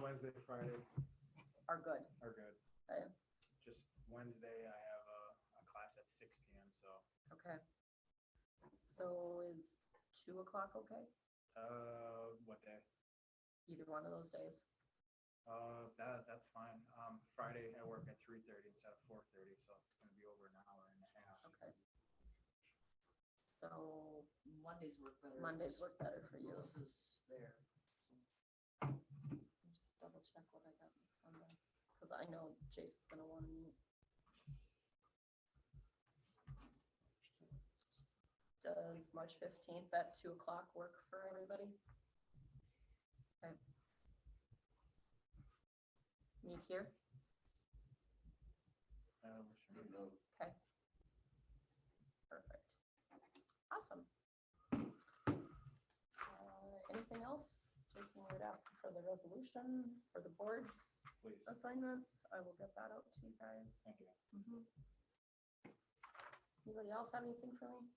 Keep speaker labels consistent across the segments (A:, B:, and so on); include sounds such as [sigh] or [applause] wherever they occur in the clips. A: Wednesday, Friday
B: are good.
A: are good.
B: Okay.
A: Just Wednesday, I have a, a class at six P M, so,
B: Okay. So is two o'clock okay?
A: uh, what day?
B: Either one of those days?
A: Uh, that, that's fine. Um, Friday, I work at three thirty instead of four thirty, so it's gonna be over an hour and a half.
B: Okay. So
C: Mondays work better.
B: Mondays work better for you.
C: This is there.
B: Just double check what I got next Sunday, because I know Jason's gonna want to meet. Does March fifteenth at two o'clock work for everybody? Okay. Meet here,
A: Um, sure.
B: okay. Perfect. Awesome. Uh, Anything else? Jason, you would ask for the resolution for the boards?
A: Please,
B: assignments. I will get that out to you guys.
A: thank you.
B: Mhm. Anybody else have anything for me?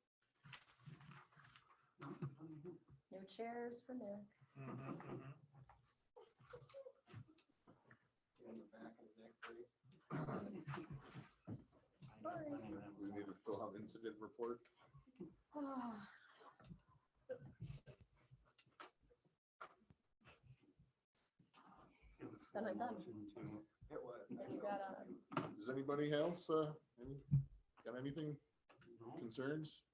B: New chairs for Nick.
A: Mm-hmm,
B: Sorry.
D: We need [laughs] to fill out incident report.
B: [sighs] Then I'm done.
D: It was.
B: And you got a,
D: Does anybody else, uh, any, got anything, concerns?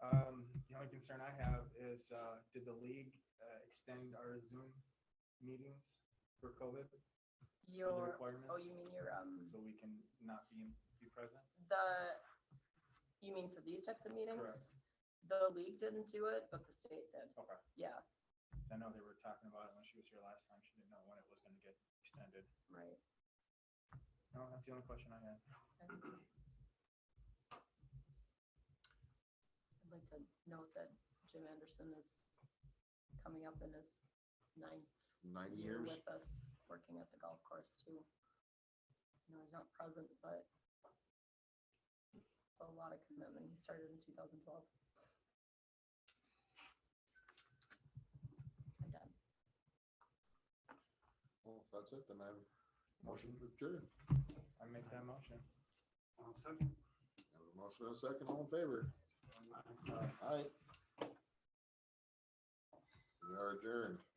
A: Um, the only concern I have is, uh, did the league, uh, extend our Zoom meetings for COVID? for the
B: your, oh, you
A: requirements?
B: mean your, um,
A: So we can not be, be present?
B: the, you mean for these types of meetings?
A: Correct.
B: The league didn't do it, but the state did.
A: Okay.
B: Yeah,
A: I know they were talking about it when she was here last time. She didn't know when it was gonna get extended.
B: right.
A: No, that's the only question I had.
B: I'd like to note that Jim Anderson is coming up in his ninth
D: Nine
B: year
D: years?
B: with us, working at the golf course too. You know, he's not present, but it's a lot of commitment. He started in two thousand twelve. I'm done.
D: Well, if that's it, then I have a motion to adjourn.
A: I make that motion.
D: I have a Motion and a second, all in favor?
A: Uh,
D: Aye. We are adjourned.